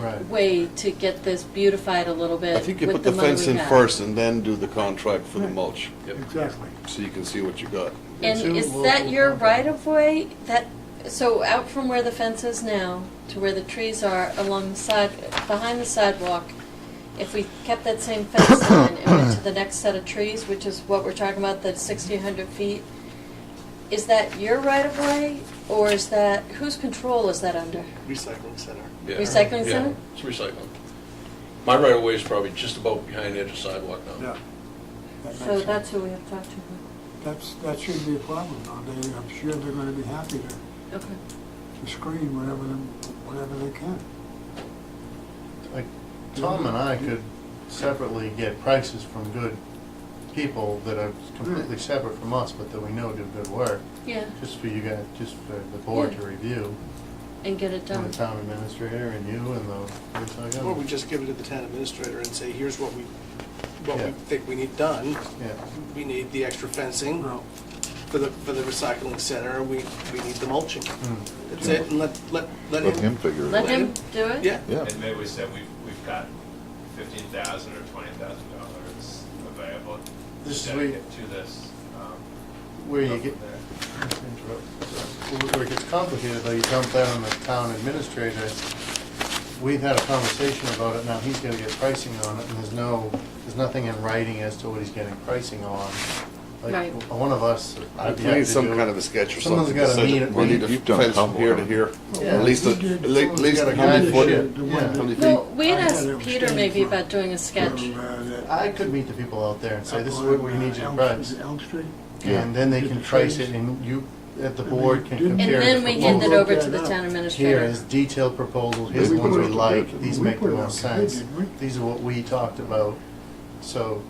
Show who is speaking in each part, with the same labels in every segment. Speaker 1: Right.
Speaker 2: way to get this beautified a little bit
Speaker 3: I think you
Speaker 2: with
Speaker 3: put
Speaker 2: the
Speaker 3: the
Speaker 2: money
Speaker 3: fence
Speaker 2: we
Speaker 3: in
Speaker 2: have.
Speaker 3: first and then do the contract for the
Speaker 4: Right.
Speaker 3: mulch,
Speaker 4: Exactly.
Speaker 3: so you can see what you got.
Speaker 2: And
Speaker 1: Two
Speaker 2: is
Speaker 1: will-
Speaker 2: that
Speaker 1: will
Speaker 2: your
Speaker 1: come.
Speaker 2: right of way? That, so out from where the fence is now to where the trees are along the side, behind the sidewalk, if we kept that same fence line and went to the next set of trees, which is what we're talking about, the sixteen hundred feet, is that your right of way or is that, whose control is that under?
Speaker 4: Recycling center.
Speaker 5: Yeah.
Speaker 2: Recycling
Speaker 5: Yeah,
Speaker 2: center?
Speaker 5: It's recycling. My right of way is probably just about behind the edge of sidewalk now.
Speaker 4: Yeah. That makes
Speaker 2: So
Speaker 4: sense.
Speaker 2: that's who we have to talk to.
Speaker 4: That's, that shouldn't be a problem, though. They, I'm sure they're gonna be happy to,
Speaker 2: Okay.
Speaker 4: to screen whenever, them- whenever they can.
Speaker 1: Like, Tom and I could separately get prices from good people that are completely separate from us, but that we know do good work,
Speaker 2: Yeah,
Speaker 1: just for you guys, just for the board to
Speaker 2: Yeah.
Speaker 1: review,
Speaker 2: and get it
Speaker 1: and
Speaker 2: done.
Speaker 1: the town administrator and you and the, it's
Speaker 6: Or we
Speaker 1: like, oh.
Speaker 6: just give it to the town administrator and say, here's what we, what
Speaker 1: Yeah.
Speaker 6: we think we need done.
Speaker 1: yeah.
Speaker 6: We need the extra fencing
Speaker 4: Well,
Speaker 6: for the, for the recycling center, we, we need the mulching.
Speaker 1: Mm.
Speaker 6: That's it, and let, let, let
Speaker 7: Let him
Speaker 6: him,
Speaker 7: figure it
Speaker 2: Let
Speaker 7: out.
Speaker 2: him do it?
Speaker 6: yeah.
Speaker 7: Yeah.
Speaker 8: And maybe we said we've, we've got fifteen thousand or twenty thousand dollars available
Speaker 1: This is
Speaker 8: to
Speaker 1: where you-
Speaker 8: dedicate to this. um,
Speaker 1: Where you
Speaker 8: go
Speaker 1: get,
Speaker 8: from there.
Speaker 1: Interrupt. Where it gets complicated, though, you dump that on the town administrator. We've had a conversation about it, now he's gonna get pricing on it, and there's no, there's nothing in writing as to what he's getting pricing on. Like,
Speaker 2: Right.
Speaker 1: one of us, I'd
Speaker 3: We
Speaker 1: be happy to do.
Speaker 3: need some kind of a sketch or
Speaker 1: Someone's
Speaker 3: something.
Speaker 1: gotta
Speaker 3: that says
Speaker 1: meet it.
Speaker 3: We need a
Speaker 7: You've done
Speaker 3: fence from
Speaker 7: tumble,
Speaker 3: here to
Speaker 7: haven't
Speaker 3: here,
Speaker 1: Yeah.
Speaker 3: at least, a-
Speaker 4: We did-
Speaker 3: at le- at
Speaker 4: someone's
Speaker 3: least
Speaker 1: gotta
Speaker 3: a hundred
Speaker 1: guide
Speaker 3: foot,
Speaker 1: it. Yeah.
Speaker 3: how many feet?
Speaker 2: Well, we had
Speaker 4: I
Speaker 2: asked
Speaker 4: had it
Speaker 2: Peter
Speaker 4: standing
Speaker 2: maybe
Speaker 4: for-
Speaker 2: about doing a sketch.
Speaker 4: for, uh, that-
Speaker 1: I could meet the people out there and say, this is
Speaker 4: up
Speaker 1: what we
Speaker 4: on,
Speaker 1: need you
Speaker 4: uh,
Speaker 1: to
Speaker 4: Elm-
Speaker 1: price,
Speaker 4: is it Elm Street?
Speaker 1: and then they can price it, and you, at the board, can
Speaker 4: And then
Speaker 1: compare.
Speaker 2: And
Speaker 1: it
Speaker 2: then
Speaker 1: to
Speaker 2: we
Speaker 1: what
Speaker 2: hand it
Speaker 4: Well,
Speaker 2: over
Speaker 4: look
Speaker 2: to
Speaker 4: that
Speaker 2: the
Speaker 4: up.
Speaker 2: town
Speaker 1: Here
Speaker 2: administrator.
Speaker 1: is detailed proposals, here's the
Speaker 4: We
Speaker 1: ones
Speaker 4: put
Speaker 1: we
Speaker 4: it-
Speaker 1: like, these
Speaker 4: we
Speaker 1: make the
Speaker 4: put it
Speaker 1: most
Speaker 4: out there,
Speaker 1: sense,
Speaker 4: didn't we?
Speaker 1: these are what we talked about. So,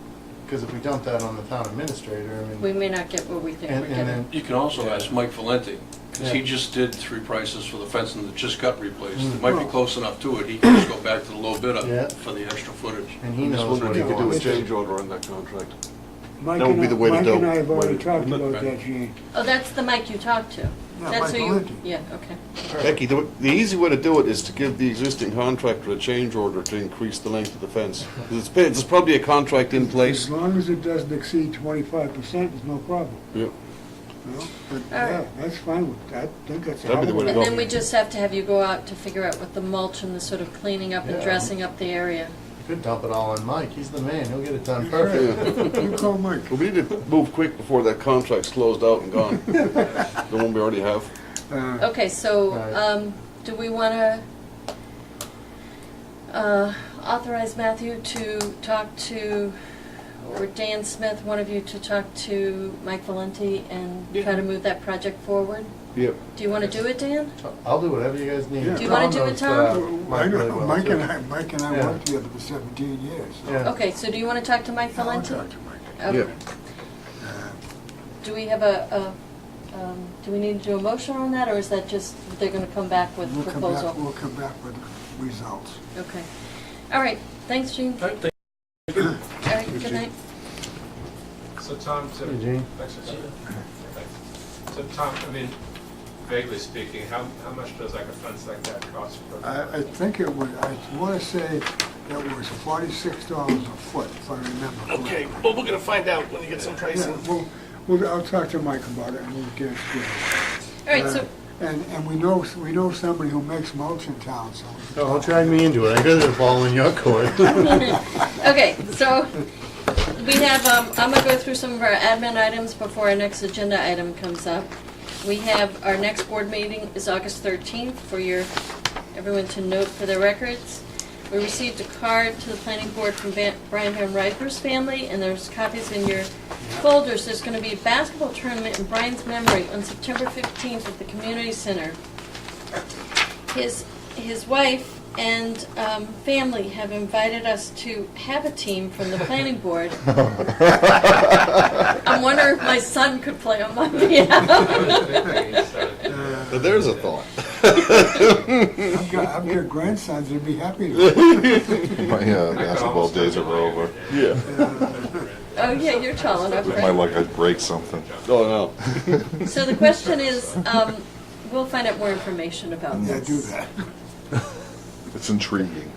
Speaker 1: because if we dump that on the town administrator, I
Speaker 2: We
Speaker 1: mean,
Speaker 2: may not get what we think
Speaker 1: and
Speaker 2: we're
Speaker 1: and
Speaker 2: getting.
Speaker 1: then,
Speaker 5: You can also ask Mike Valenti, because he
Speaker 1: Yeah.
Speaker 5: just did three prices for the fencing that just got replaced.
Speaker 1: Mm.
Speaker 5: It might be close enough to it, he can just go back to the low
Speaker 1: Yeah.
Speaker 5: bidder for the extra footage.
Speaker 1: and he
Speaker 3: I'm just
Speaker 1: knows
Speaker 3: wondering
Speaker 1: what
Speaker 3: if
Speaker 1: he
Speaker 3: you could do a
Speaker 1: wants.
Speaker 3: change order on that contract.
Speaker 4: Mike
Speaker 3: That would
Speaker 4: and
Speaker 3: be
Speaker 4: I-
Speaker 3: the way to
Speaker 4: Mike
Speaker 3: do
Speaker 4: and I
Speaker 3: it.
Speaker 4: have already
Speaker 3: Way to-
Speaker 4: talked
Speaker 5: Look
Speaker 4: about
Speaker 5: back.
Speaker 4: that, Gene.
Speaker 2: Oh, that's the Mike you talked to? That's who
Speaker 4: Mike
Speaker 2: you,
Speaker 4: Valenti.
Speaker 2: yeah, okay.
Speaker 3: Becky, the, the easy way to do it is to give the existing contractor a change order to increase the length of the fence. 'Cause It's, been- there's probably a contract in place.
Speaker 4: As long as it doesn't exceed twenty-five percent, there's no problem,
Speaker 3: Yep.
Speaker 4: you know? But,
Speaker 2: All
Speaker 4: yeah,
Speaker 2: right.
Speaker 4: that's fine with, I think that's a
Speaker 3: That'd be the
Speaker 4: hell of
Speaker 3: way
Speaker 4: a-
Speaker 3: to
Speaker 2: And
Speaker 3: go.
Speaker 2: then we just have to have you go out to figure out what the mulch and the sort of cleaning up and
Speaker 1: Yeah.
Speaker 2: dressing up the area.
Speaker 1: You could dump it all on Mike, he's the man, he'll get it done perfect.
Speaker 4: Perfect. You call Mike.
Speaker 3: But we need to move quick before that contract's closed out and gone. The one we already have.
Speaker 4: Uh,
Speaker 2: Okay, so,
Speaker 1: Right.
Speaker 2: um, do we wanna, uh, authorize Matthew to talk to, or Dan Smith, one of you, to talk to Mike Valenti and try to move that project forward?
Speaker 3: Yep.
Speaker 2: Do you wanna do it, Dan?
Speaker 1: I'll do whatever you guys need.
Speaker 4: Yeah. Do you
Speaker 1: Tom
Speaker 2: wanna do it,
Speaker 1: knows,
Speaker 2: Tom?
Speaker 1: uh,
Speaker 4: I
Speaker 1: Mike really
Speaker 4: know,
Speaker 1: well,
Speaker 4: Mike
Speaker 1: too.
Speaker 4: and I, Mike and I
Speaker 1: Yeah.
Speaker 4: worked together for seventeen years, so.
Speaker 1: Yeah.
Speaker 2: Okay, so do you wanna talk to Mike
Speaker 4: I wanna
Speaker 2: Valenti?
Speaker 4: talk to Mike.
Speaker 2: Okay.
Speaker 4: Uh,
Speaker 2: Do we have a, a, um, do we need to do a motion on that, or is that just, they're gonna come back with
Speaker 4: We'll come
Speaker 2: proposal?
Speaker 4: back, we'll come back with results.
Speaker 2: Okay. All right, thanks, Gene. All
Speaker 5: Right, thank-
Speaker 2: right, good night.
Speaker 8: So Tom, to.
Speaker 1: Hey, Gene.
Speaker 8: Thanks, sir. Thanks. So Tom, I mean, vaguely speaking, how, how much does like a fence like that cost? per-
Speaker 4: I, I think it was, I want to say it was forty-six dollars a foot, if I remember correctly.
Speaker 6: Okay, well, we're gonna find out when you get some
Speaker 4: Yeah,
Speaker 6: pricing.
Speaker 4: well, we'll, I'll talk to Mike about it and we'll get it together.
Speaker 2: All right, so,
Speaker 4: And, and we know, we know somebody who makes mulch in town, so. we can
Speaker 1: No, don't
Speaker 4: talk.
Speaker 1: drag me into it, I got it all in your court.
Speaker 2: okay, so we have, um, I'm gonna go through some of our admin items before our next agenda item comes up. We have, our next board meeting is August 13th for your, everyone to note for their records. We received a card to the planning board from Van- Brian Van Riper's family, and there's copies in your folders. There's gonna be a basketball tournament in Brian's memory on September 15th at the community center. his his wife and um, family have invited us to have a team from the planning board. I'm wondering if my son could play on my
Speaker 8: I was
Speaker 2: behalf.
Speaker 8: thinking it's, uh,
Speaker 4: Uh,
Speaker 3: Now, there's a thought.
Speaker 4: I've got, I've got grandsons, they'd be happy to.
Speaker 7: My uh,
Speaker 8: I could
Speaker 7: basketball
Speaker 8: almost do
Speaker 7: days
Speaker 8: it
Speaker 7: are
Speaker 8: later
Speaker 7: over.
Speaker 8: today.
Speaker 3: Yeah.
Speaker 4: uh,
Speaker 2: oh yeah, you're tall enough.
Speaker 7: With
Speaker 2: right?
Speaker 7: my luck, I'd break something.
Speaker 3: Oh, no.
Speaker 2: So the question is, um, we'll find out more information about
Speaker 4: Yeah,
Speaker 2: this.
Speaker 4: do that.
Speaker 7: It's intriguing.